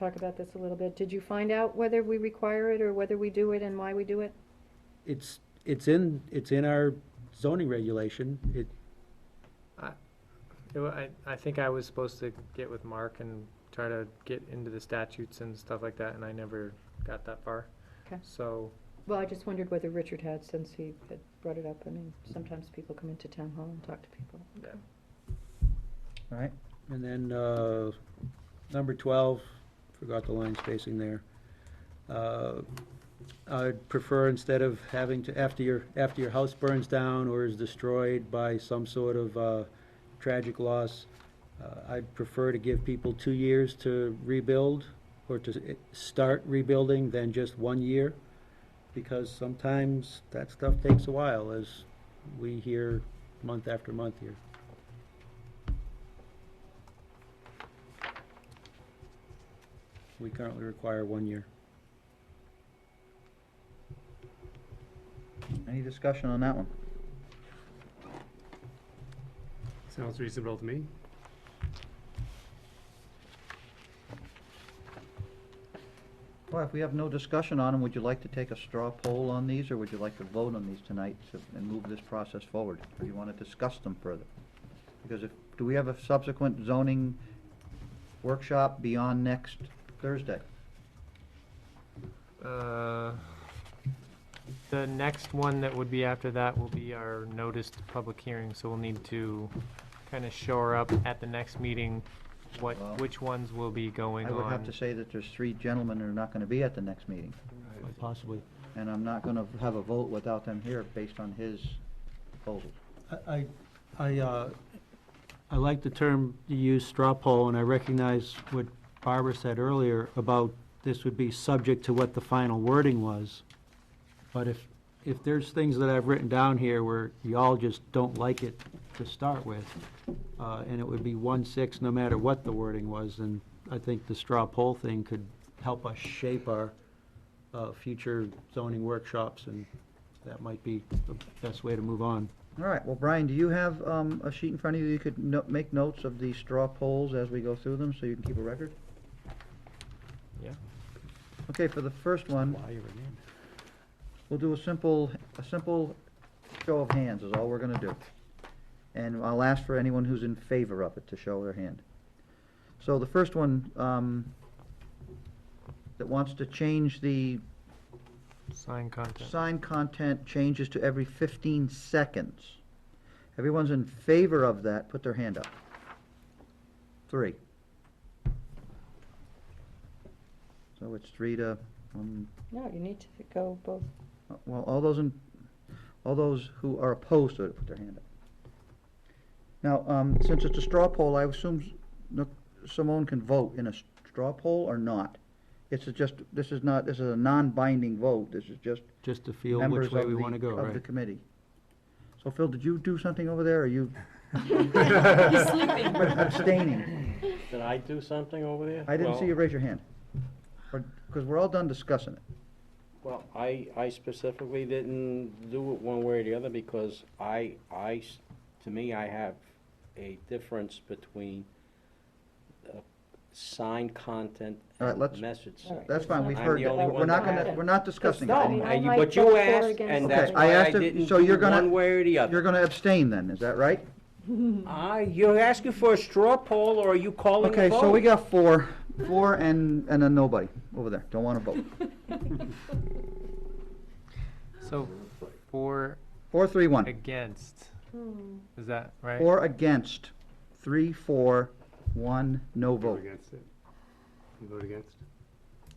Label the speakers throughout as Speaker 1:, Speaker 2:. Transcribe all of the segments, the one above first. Speaker 1: talk about this a little bit. Did you find out whether we require it or whether we do it and why we do it?
Speaker 2: It's, it's in, it's in our zoning regulation. It,
Speaker 3: It wa- I, I think I was supposed to get with Mark and try to get into the statutes and stuff like that, and I never got that far.
Speaker 1: Okay.
Speaker 3: So,
Speaker 1: Well, I just wondered whether Richard had, since he had brought it up. I mean, sometimes people come into town hall and talk to people.
Speaker 3: yeah.
Speaker 4: All right,
Speaker 2: and then, uh, number twelve, forgot the line spacing there. Uh, I'd prefer instead of having to, after your, after your house burns down or is destroyed by some sort of, uh, tragic loss, uh, I'd prefer to give people two years to rebuild or to s- start rebuilding than just one year. Because sometimes that stuff takes a while, as we hear month after month here. We currently require one year.
Speaker 4: any discussion on that one?
Speaker 5: Sounds reasonable to me.
Speaker 4: Well, if we have no discussion on them, would you like to take a straw poll on these, or would you like to vote on these tonight to- and move this process forward? Or do you want to discuss them further? Because if, do we have a subsequent zoning workshop beyond next Thursday?
Speaker 3: Uh, The next one that would be after that will be our noticed public hearing, so we'll need to kind of shore up at the next meeting what,
Speaker 4: Well,
Speaker 3: which ones will be going
Speaker 4: I
Speaker 3: on.
Speaker 4: would have to say that there's three gentlemen who are not going to be at the next meeting,
Speaker 2: Possibly.
Speaker 4: and I'm not going to have a vote without them here based on his proposal.
Speaker 2: I, I, uh, I like the term you use, straw poll, and I recognize what Barbara said earlier about this would be subject to what the final wording was. But if, if there's things that I've written down here where y'all just don't like it to start with, uh, and it would be one-six no matter what the wording was, then I think the straw poll thing could help us shape our uh, future zoning workshops, and that might be the best way to move on.
Speaker 4: All right, well, Brian, do you have um, a sheet in front of you you could no- make notes of the straw polls as we go through them, so you can keep a record?
Speaker 3: Yeah.
Speaker 4: Okay, for the first one,
Speaker 2: Wire it in.
Speaker 4: we'll do a simple, a simple show of hands is all we're gonna do. And I'll ask for anyone who's in favor of it to show their hand. So the first one, um, that wants to change the
Speaker 3: Sign content.
Speaker 4: sign content changes to every fifteen seconds. Everyone's in favor of that, put their hand up. Three. So it's three to, um,
Speaker 1: No, you need to go both.
Speaker 4: well, all those in, all those who are opposed to it, put their hand up. Now, um, since it's a straw poll, I assume s- no- Simone can vote in a s- straw poll or not? It's a just, this is not, this is a non-binding vote, this is just
Speaker 2: Just to feel which way we want to go,
Speaker 4: Members of the, of the
Speaker 2: right?
Speaker 4: committee. So Phil, did you do something over there, or you
Speaker 6: He's sleeping.
Speaker 4: abstaining?
Speaker 7: Did I do something over there?
Speaker 4: I didn't see
Speaker 7: Well,
Speaker 4: you raise your hand. Because we're all done discussing it.
Speaker 7: Well, I, I specifically didn't do it one way or the other because I, I, s- to me, I have a difference between uh, signed content
Speaker 4: All right,
Speaker 7: and
Speaker 4: let's-
Speaker 7: message.
Speaker 1: All right.
Speaker 7: sent.
Speaker 4: That's fine, we've
Speaker 7: I'm
Speaker 4: heard
Speaker 7: the
Speaker 4: that.
Speaker 7: only
Speaker 4: We're
Speaker 7: one
Speaker 4: not
Speaker 7: that-
Speaker 4: gonna, we're not discussing
Speaker 1: It's
Speaker 4: it.
Speaker 1: not- I
Speaker 7: And you-
Speaker 1: might
Speaker 7: But
Speaker 1: vote
Speaker 7: you
Speaker 1: for or
Speaker 7: asked,
Speaker 1: against
Speaker 7: and
Speaker 1: it.
Speaker 7: that's
Speaker 4: Okay, I
Speaker 7: why I
Speaker 4: asked if-
Speaker 7: didn't
Speaker 4: so
Speaker 7: do
Speaker 4: you're gonna-
Speaker 7: one way or the
Speaker 4: You're
Speaker 7: other.
Speaker 4: gonna abstain then, is that right?
Speaker 7: I, you're asking for a straw poll or are you calling
Speaker 4: Okay,
Speaker 7: a vote?
Speaker 4: so we got four, four and, and then nobody over there, don't wanna vote.
Speaker 3: So, for,
Speaker 4: Four, three, one.
Speaker 3: against,
Speaker 1: Hmm.
Speaker 3: is that right?
Speaker 4: Four against, three, four, one, no
Speaker 5: You vote
Speaker 4: vote.
Speaker 5: against it. You vote against?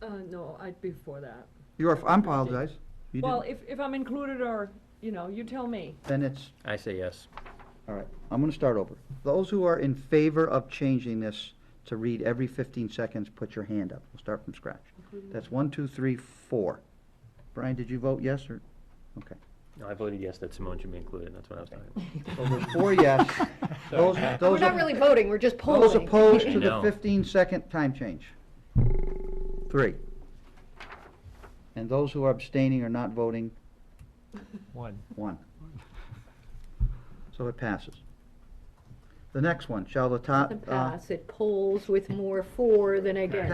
Speaker 6: Uh, no, I'd be for that.
Speaker 4: You're, I apologize. You
Speaker 6: Well,
Speaker 4: didn't,
Speaker 6: if, if I'm included or, you know, you tell me.
Speaker 4: then it's
Speaker 7: I say yes.
Speaker 4: All right, I'm gonna start over. Those who are in favor of changing this to read every fifteen seconds, put your hand up. We'll start from scratch. That's one, two, three, four. Brian, did you vote yes or, okay.
Speaker 8: No, I voted yes that Simone should be included, that's what I was talking about.
Speaker 4: So there's four yes. Those,
Speaker 1: We're
Speaker 4: those,
Speaker 1: not really voting, we're just polling.
Speaker 4: those opposed to the
Speaker 8: No.
Speaker 4: fifteen second time change? Three. And those who are abstaining or not voting,
Speaker 3: One.
Speaker 4: One. So it passes. The next one, shall the top,
Speaker 1: Doesn't
Speaker 4: uh,
Speaker 1: pass, it polls with more for than against.